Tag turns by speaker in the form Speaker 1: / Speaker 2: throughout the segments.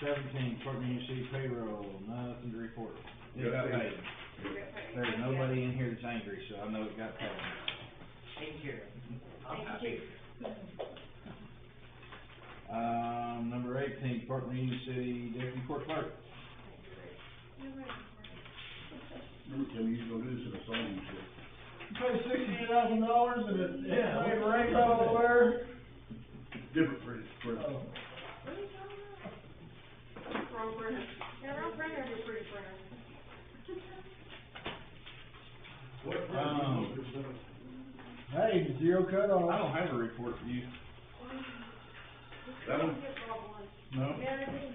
Speaker 1: Seventeen, Courtney C payroll, nothing to report. It
Speaker 2: Yeah,
Speaker 1: got
Speaker 2: thank
Speaker 1: paid. There's nobody in here that's angry, so I know it got paid.
Speaker 3: Take care. I'm
Speaker 4: Thank you.
Speaker 3: happy.
Speaker 1: Um, number eighteen, Courtney City Deputy Court Clerk.
Speaker 2: Remember, Tim, you used to go do this in a song, you said.
Speaker 5: Pay sixty thousand dollars and it,
Speaker 2: Yeah.
Speaker 5: it rains everywhere.
Speaker 2: Different for this, for,
Speaker 5: Oh,
Speaker 4: Wrong printer. Yeah, wrong printer, it's pretty printer.
Speaker 2: what,
Speaker 1: Um,
Speaker 2: um,
Speaker 5: Hey, zero cut
Speaker 1: I
Speaker 5: off.
Speaker 1: don't have a report for you.
Speaker 2: That one?
Speaker 4: Get wrong one.
Speaker 1: No.
Speaker 4: Yeah, they did.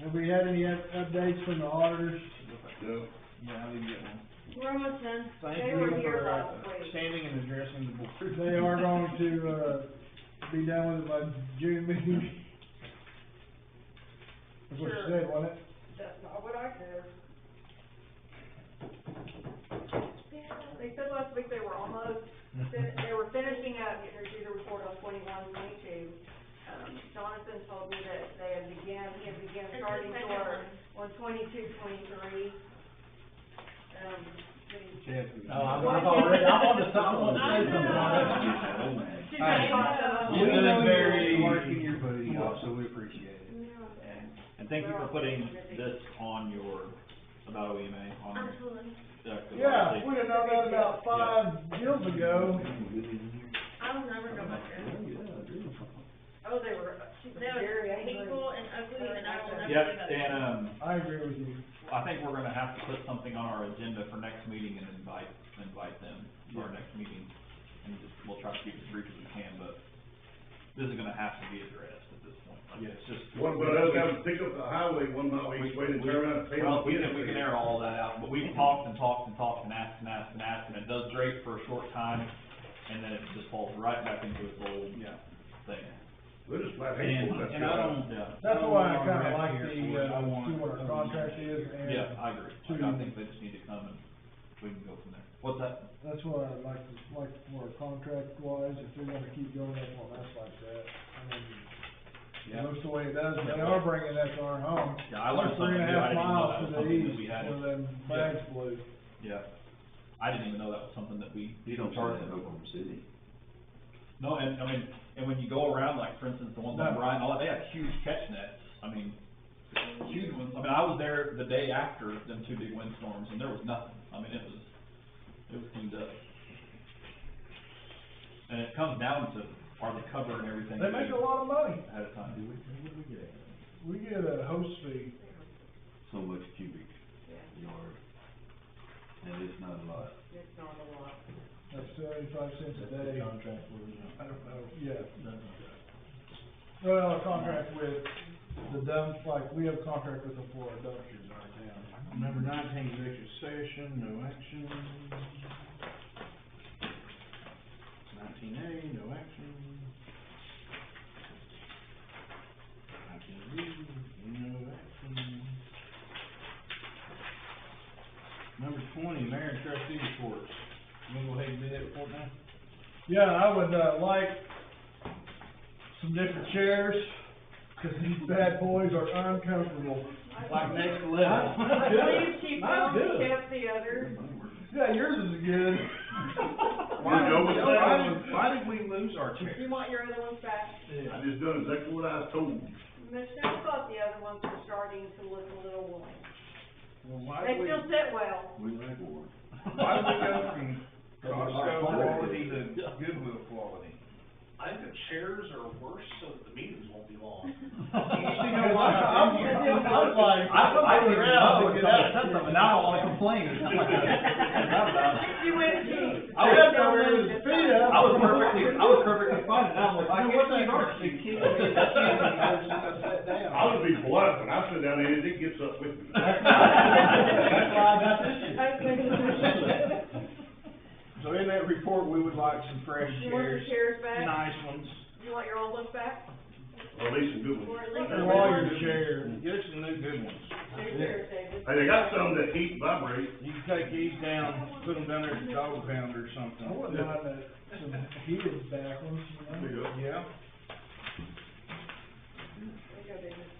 Speaker 5: Have we had any up- updates from the auditors?
Speaker 2: no,
Speaker 1: Yeah, I didn't get one.
Speaker 4: We're almost done.
Speaker 1: Thank
Speaker 4: They
Speaker 1: you
Speaker 4: were here
Speaker 1: for, uh,
Speaker 4: last week.
Speaker 1: standing and addressing the board.
Speaker 5: They are going to, uh, be done with it by June meeting. That's what you
Speaker 4: Sure.
Speaker 5: said, wasn't it?
Speaker 4: That's not what I said. They said last week they were almost, fin- they were finishing up, getting their due report on twenty-one, twenty-two. Um, Jonathan told me that they had began, he had began
Speaker 6: It's the
Speaker 4: starting to
Speaker 6: second
Speaker 4: work on
Speaker 6: one.
Speaker 4: twenty-two, twenty-three. Um, we-
Speaker 1: Kathy.
Speaker 2: Oh, I'm-
Speaker 4: I've already- I'm
Speaker 2: on the top one.
Speaker 6: I
Speaker 5: Oh,
Speaker 6: know.
Speaker 1: Hey.
Speaker 4: Yeah.
Speaker 1: You done very,
Speaker 2: Very-
Speaker 1: working your booty off, so we appreciate it.
Speaker 7: And thank you for putting this on your, about OEMA, on your,
Speaker 6: Absolutely.
Speaker 7: uh, the
Speaker 5: Yeah,
Speaker 7: website.
Speaker 5: we'd have known that about
Speaker 2: uh,
Speaker 5: five years ago.
Speaker 6: I'll never go back there.
Speaker 4: Oh, they were, she was
Speaker 6: They
Speaker 4: very
Speaker 6: were
Speaker 4: angry.
Speaker 6: hateful and ugly and I will never
Speaker 7: Yep,
Speaker 6: live up
Speaker 7: and, um,
Speaker 5: I agree with you.
Speaker 7: I think we're gonna have to put something on our agenda for next meeting and invite, invite them to our next meeting. And just, we'll try to keep it as brief as we can, but this is gonna have to be addressed at this point. Like, it's just.
Speaker 2: one, but uh, um, I was gonna pick up the highway one mile each way and turn around and pay
Speaker 7: Well,
Speaker 2: off.
Speaker 7: we can, we can air all that out, but we've talked and talked and talked and asked and asked and asked, and it does great for a short time, and then it just falls right back into its old
Speaker 1: Yeah.
Speaker 7: thing.
Speaker 2: We're just flat
Speaker 1: And,
Speaker 2: hateful, that's
Speaker 1: and I
Speaker 2: all.
Speaker 1: don't,
Speaker 7: Yeah.
Speaker 5: That's why I
Speaker 1: don't
Speaker 5: kinda
Speaker 1: have
Speaker 5: like
Speaker 1: to hear
Speaker 5: the,
Speaker 1: it. I
Speaker 5: uh,
Speaker 1: want
Speaker 5: see what our
Speaker 1: something.
Speaker 5: contract is and.
Speaker 7: Yeah, I agree. Like, I
Speaker 5: to-
Speaker 7: think they just need to come and we can go from there. What's that?
Speaker 5: That's what I'd like to, like, for contract wise, if we wanna keep going up on us like that, I mean, it
Speaker 1: Yeah.
Speaker 5: looks the way it does, they are bringing that to our home.
Speaker 7: Yeah, I learned something
Speaker 5: Three
Speaker 7: new.
Speaker 5: and
Speaker 7: I
Speaker 5: a half
Speaker 7: didn't even know that was
Speaker 5: miles to the
Speaker 7: something that we
Speaker 5: east,
Speaker 7: had.
Speaker 5: one of them bags blew.
Speaker 7: Yeah. I didn't even know that was something that we.
Speaker 8: You don't charge in Oklahoma City.
Speaker 7: No, and, I mean, and when you go around, like, for instance, the ones on
Speaker 5: No.
Speaker 7: Bryant, all that, they have huge catch nets. I mean, huge ones. I mean, I was there the day after them two big windstorms and there was nothing. I mean, it was, it was cleaned up. And it comes down to, are they covering everything?
Speaker 5: They make a lot of money,
Speaker 7: Ahead of time.
Speaker 5: we get a host fee,
Speaker 8: So much cubic yard. And it's not a lot.
Speaker 4: It's not a lot.
Speaker 5: that's seventy-five cents a day,
Speaker 1: Contract for,
Speaker 5: I don't know, yeah.
Speaker 1: yeah.
Speaker 5: Well, a contract with the dump, like, we have a contract with them for our dumpsters in our town.
Speaker 1: Number nineteen, executive session, no action. Nineteen A, no action. Nineteen B, no action. Number twenty, mayor and trustee reports. You wanna go ahead and do that report now?
Speaker 5: Yeah, I would, uh, like some different chairs, 'cause these bad boys are uncomfortable.
Speaker 1: Like next level.
Speaker 5: I'm
Speaker 4: Please
Speaker 5: good.
Speaker 4: keep
Speaker 5: I'm
Speaker 4: one,
Speaker 5: good.
Speaker 4: kept the other.
Speaker 5: Yeah, yours is good.
Speaker 2: Why-
Speaker 1: Why did-
Speaker 2: why
Speaker 1: did- Why did we lose our chair?
Speaker 4: You want your other ones back?
Speaker 2: I just done exactly what I was told.
Speaker 4: Michelle thought the other ones were starting to look a little worn.
Speaker 1: Well, why
Speaker 4: They
Speaker 1: did we?
Speaker 4: still sit well.
Speaker 8: We like war.
Speaker 2: Why would we go from Costco quality to Goodwill quality?
Speaker 3: I think the chairs are worse so that the meetings won't be long.
Speaker 5: You know, I, I'm, I'm like,
Speaker 7: I,
Speaker 5: I'm
Speaker 7: I didn't even
Speaker 5: looking around,
Speaker 7: know
Speaker 5: looking
Speaker 7: somebody
Speaker 5: at
Speaker 7: said something, now I wanna complain. It's like, not about-
Speaker 4: You went deep.
Speaker 7: I was-
Speaker 5: Chad's over there with his feet up.
Speaker 7: I was perfectly, I was perfectly fine, and I'm like, I
Speaker 5: Dude,
Speaker 7: guess
Speaker 5: what's that
Speaker 7: you are.
Speaker 5: person?
Speaker 3: I sat down.
Speaker 2: I would be blunt, when I sit down there, it gets up with me.
Speaker 5: That's why I got this shit.
Speaker 1: So in that report, we would like some fresh
Speaker 4: You want your
Speaker 1: chairs,
Speaker 4: chairs back?
Speaker 1: nice ones.
Speaker 4: You want your old ones back?
Speaker 2: Or at least a good one.
Speaker 4: Or at least
Speaker 5: They're
Speaker 4: your
Speaker 5: all
Speaker 4: ones?
Speaker 5: your chairs.
Speaker 1: Get us some new good ones.
Speaker 4: Two chairs, David.
Speaker 2: Hey, they got some that heat and vibrate.
Speaker 1: You can take these down, put them down there at the dog pound or
Speaker 5: I wouldn't
Speaker 1: something.
Speaker 5: mind that, some heated back ones, you know?
Speaker 2: There you go.
Speaker 1: Yeah.
Speaker 4: There you go, David.